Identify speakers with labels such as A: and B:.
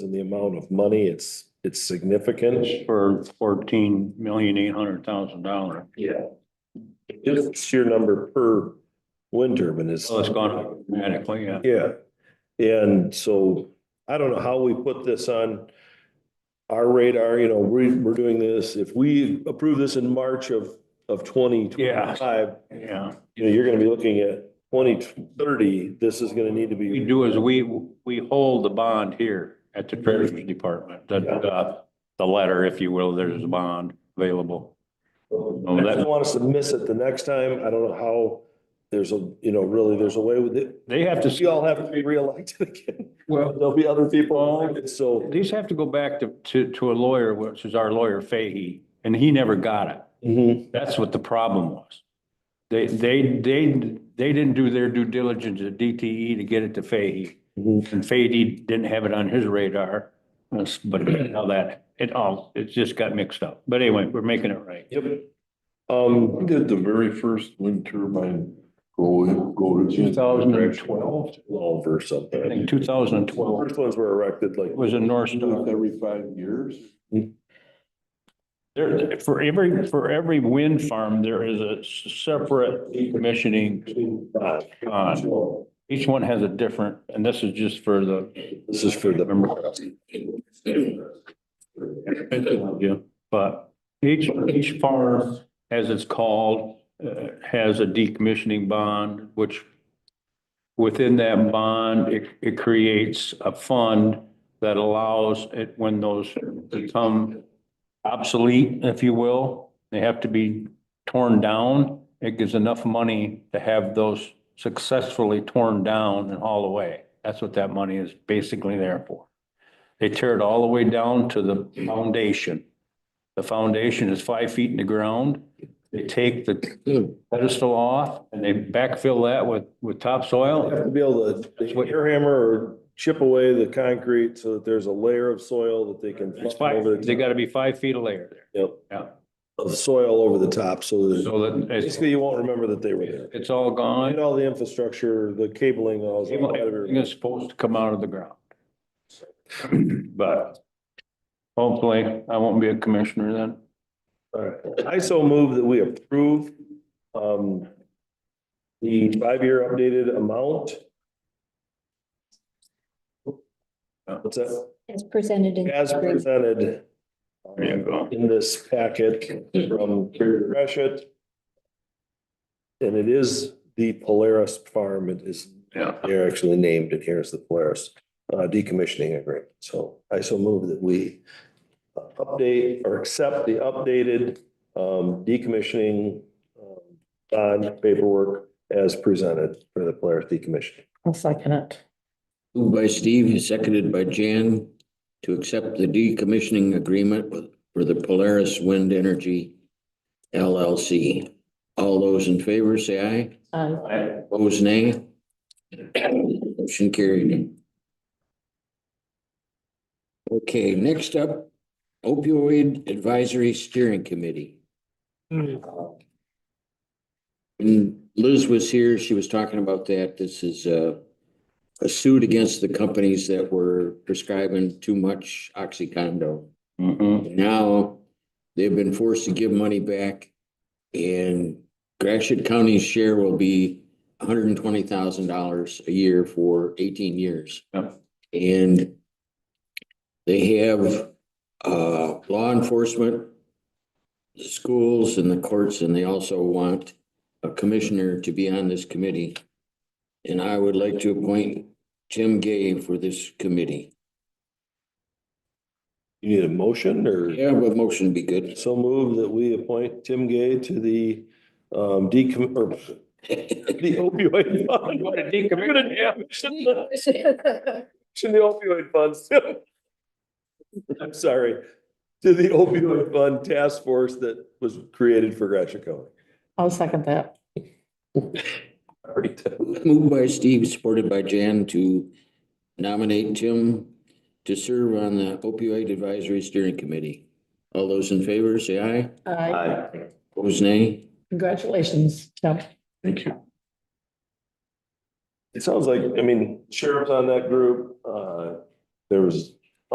A: amount of money. It's, it's significant.
B: It's for fourteen million eight hundred thousand dollars.
A: Yeah. It's your number per wind turbine is.
B: So Oh, it's gone up dramatically, yeah.
A: Yeah, and so I don't know how we put this on our radar, you know, we, we're doing this, if we approve this in March of, of twenty twenty-five,
B: Yeah,
A: you know, you're gonna be looking at twenty thirty, this is gonna need to
B: we
A: be,
B: do is we, we hold the bond here at the Treasury Department, the, the, the letter, if you will, there's a bond available.
A: I don't want us to miss it the next time, I don't know how, there's a, you know, really, there's a way with it.
B: They have
A: We
B: to,
A: all have to be reelected again,
B: well,
A: there'll be other people, elected, so.
B: these have to go back to, to, to a lawyer, which is our lawyer Fahey, and he never got it.
A: Mhm.
B: That's what the problem was. They, they, they, they didn't do their due diligence at DTE to get it to Fahey.
A: Mhm.
B: And Fahey didn't have it on his radar. That's- But now that, it all, it just got mixed up. But anyway, we're making it right.
A: Yep. Um,
C: When did the very first wind turbine go, go to?
B: 2012?
A: twelve or something.
B: I think two thousand and twelve
A: First ones were erected like
B: was a North
C: Doing it
B: Star.
C: Every five years?
B: There, for every, for every wind farm, there is a separate decommissioning Oh, bond. Each one has a different, and this is just for the
A: This is for the,
B: Yeah, but each, each farm, as it's called, uh, has a decommissioning bond, which within that bond, it, it creates a fund that allows it, when those become obsolete, if you will, they have to be torn down. It gives enough money to have those successfully torn down and hauled away. That's what that money is basically there for. They tear it all the way down to the foundation. The foundation is five feet in the ground. They take the pedestal off and they backfill that with, with
A: have
B: topsoil.
A: to be able to,
B: That's what-
A: air hammer or chip away the concrete so that there's a layer of soil that they can.
B: It's
A: flip
B: five,
A: over the
B: they
A: top
B: gotta be five feet of layer there.
A: Yep.
B: Yeah.
A: Of soil over the top, so that
B: So that it's,
A: basically you won't remember that they were there.
B: it's all
A: And
B: gone.
A: all the infrastructure, the cabling, all. is all out of
B: Everything
A: your-
B: is supposed to come out of the ground. But hopefully I won't be a commissioner then.
A: All right. I so move that we approve, um, the five-year updated amount. What's that?
D: As presented in.
A: As presented.
B: There you go.
A: in this packet from Carrie Gresham. And it is the Polaris Farm, it is,
B: Yeah.
A: they're actually named, and here's the Polaris uh, decommissioning agreement. So I so move that we uh, update or accept the updated um, decommissioning um, bond paperwork as presented for the Polaris decommissioning.
E: I'll second it.
F: Moved by Steve and seconded by Jan to accept the decommissioning agreement with, for the Polaris Wind Energy LLC. All those in favor, say
E: Aye.
F: aye. Opposed, nay. Motion carried. Okay, next up, opioid advisory steering committee. When Liz was here, she was talking about that. This is a, a suit against the companies that were prescribing too much Oxycondo.
B: Mm-hmm.
F: Now, they've been forced to give money back and Gratiot County's share will be hundred and twenty thousand dollars a year for eighteen years.
B: Yep.
F: And they have, uh, law enforcement, the schools and the courts, and they also want a commissioner to be on this committee. And I would like to appoint Tim Gay for this committee.
A: You need a motion or?
F: Yeah, but motion would be good.
A: So move that we appoint Tim Gay to the um, decom, or the opioid fund. I'm gonna decommission the decommission the opioid funds. I'm sorry, to the opioid fund task force that was created for Gratiot County.
E: I'll second that.
A: Already done.
F: Moved by Steve, supported by Jan to nominate Tim to serve on the opioid advisory steering committee. All those in favor, say aye.
E: Aye.
F: Opposed, nay.
E: Congratulations, Tim.
B: Thank you.
A: It sounds like, I mean, sheriff's on that group, uh, there was